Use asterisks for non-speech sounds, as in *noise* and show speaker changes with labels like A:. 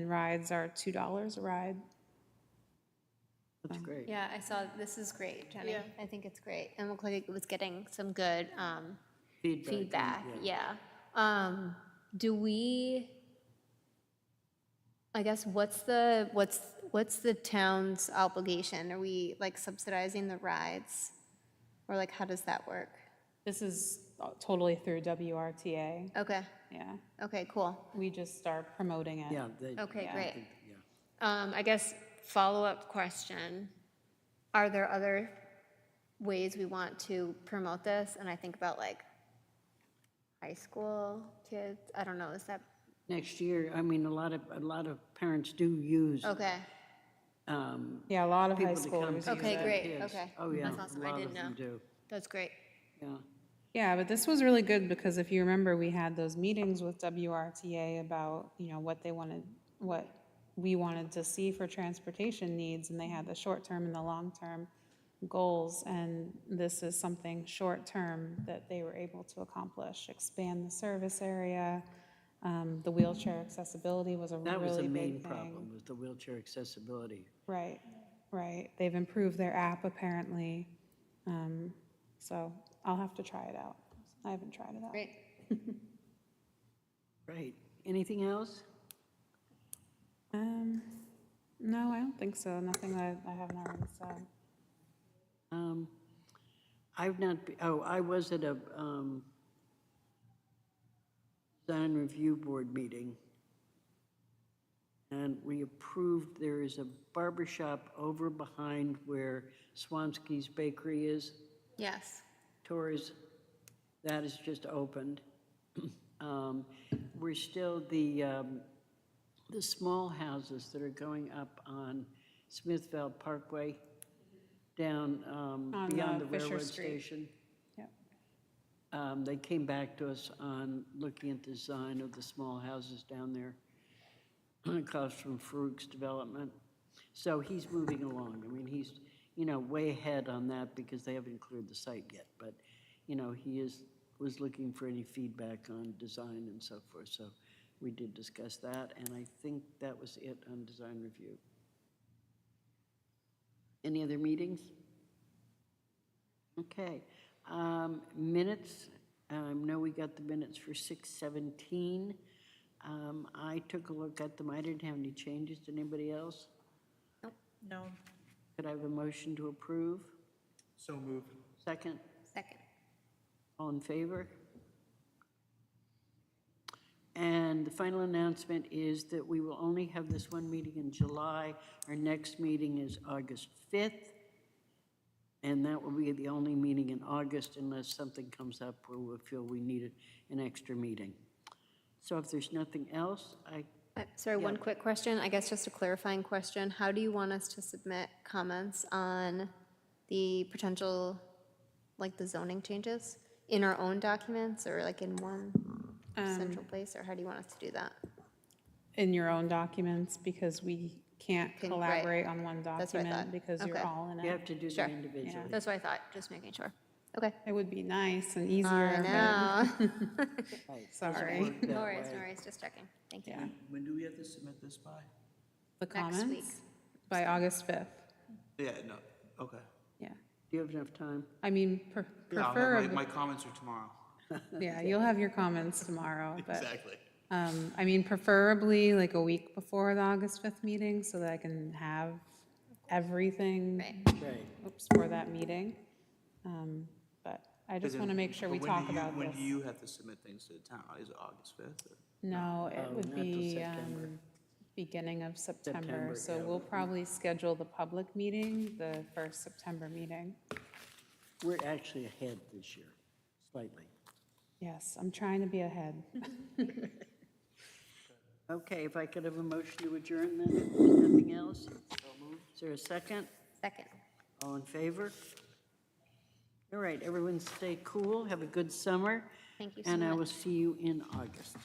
A: rides are $2 a ride.
B: That's great.
C: Yeah, I saw, this is great, Jenny.
D: Yeah.
C: I think it's great. And looked like it was getting some good um,
B: Feedback. and-
C: feedback, yeah. Um, Do we, I guess, what's the, what's, what's the town's obligation? Are we like subsidizing the rides? Or like, how does that work?
A: This is totally through WRTA,
C: Okay,
A: yeah.
C: okay, cool.
A: We just start promoting it.
B: Yeah. they-
C: Okay,
B: I
C: great.
B: think- yeah.
C: Um, I guess, follow-up question. Are there other ways we want to promote this? And I think about like high school kids, I don't know, is that,
B: Next year, I mean, a lot of, a lot of parents do use
C: okay,
B: um,
A: Yeah, a lot of high
B: people to come.
A: schoolers.
B: to
A: use
C: Okay,
B: their
A: it.
C: great,
B: kids.
C: okay.
B: Oh, yeah.
C: That's awesome.
B: a
C: I
B: lot
C: didn't
B: of them
C: know.
B: do,
C: that's great.
B: yeah.
A: Yeah, but this was really good because if you remember, we had those meetings with WRTA about, you know, what they wanted, what we wanted to see for transportation needs, and they had the short-term and the long-term goals, and this is something short-term that they were able to accomplish, expand the service area, um, the wheelchair accessibility was a really big
B: That
A: thing.
B: was the main problem, was the wheelchair accessibility.
A: Right, right. They've improved their app apparently. Um, so I'll have to try it out. I haven't tried it out.
C: Great.
B: Right. Anything else?
A: Um, no, I don't think so. Nothing that I haven't already said.
B: Um, I've not, be- oh, I was at a um, design review board meeting, and we approved, there is a barber shop over behind where Swansky's Bakery is,
C: Yes,
B: Torres, that is just opened. *clears throat* Um, We're still the, um, the small houses that are going up on Smithville Parkway, down um,
A: On,
B: beyond
A: uh,
B: the
A: Fisher
B: railroad
A: Street.
B: station.
A: Yep.
B: Um, They came back to us on looking at the design of the small houses down there, *clears throat* across from Farouk's development. So he's moving along. I mean, he's, you know, way ahead on that because they haven't cleared the site yet. But, you know, he is, was looking for any feedback on design and so forth. So we did discuss that, and I think that was it on design review. Any other meetings? Okay, um, minutes, um, no, we got the minutes for six seventeen. Um, I took a look at them, I didn't have any changes, Did anybody else?
D: No.
B: Could I have a motion to approve?
E: So moved.
B: Second,
C: second.
B: all in favor? And the final announcement is that we will only have this one meeting in July. Our next meeting is August fifth. And that will be the only meeting in August unless something comes up where we feel we needed an extra meeting. So if there's nothing else, I,
C: Uh, Sorry, one quick question, I guess just a clarifying question. How do you want us to submit comments on the potential, like the zoning changes? In our own documents or like in one
A: Um,
C: central place, or how do you want us to do that?
A: In your own documents because we can't
C: Can- right.
A: collaborate on one
C: That's what I
A: document
C: thought.
A: because you're
C: Okay.
A: all in
B: you
A: it.
B: have to do
C: Sure.
B: them individually.
C: That's what I thought, just making sure. Okay.
A: It would be nice and
C: I
A: easier. but-
C: know.
B: Right, doesn't
A: Sorry. *laughs*
B: work that
C: *laughs* No worries,
B: way.
C: no worries, just checking. Thank you.
A: Yeah.
E: When do we have to submit this by?
A: The
C: Next week.
A: comments by August 5th.
E: Yeah, no, okay.
A: Yeah.
B: Do you have enough time?
A: I mean, pre-
E: Yeah, I'll have
A: preferably,
E: my, my comments are tomorrow.
A: yeah, you'll have your comments tomorrow, but Um, I mean, preferably like a week before the August 5th meeting so that I can have everything
C: Right.
B: Right.
A: oops, for that meeting. Um, But I just want to make sure we
E: But when do
A: talk
E: you-
A: about
E: When
A: this.
E: do you have to submit things to the town? Is it August fifth?
A: No, it
E: um,
B: Oh,
A: would
B: not till
A: be
B: September.
A: um, beginning of September.
B: September,
A: So
B: yeah.
A: we'll probably schedule the public meeting, the first September meeting.
B: We're actually ahead this year, slightly.
A: Yes, I'm trying to be ahead.
B: Okay, if I could have a motion to adjourn then, if there's nothing else? Is there a second?
C: Second.
B: All in favor? All right, everyone stay cool, have a good summer.
C: Thank you so
B: And I will
C: much.
B: see you in August.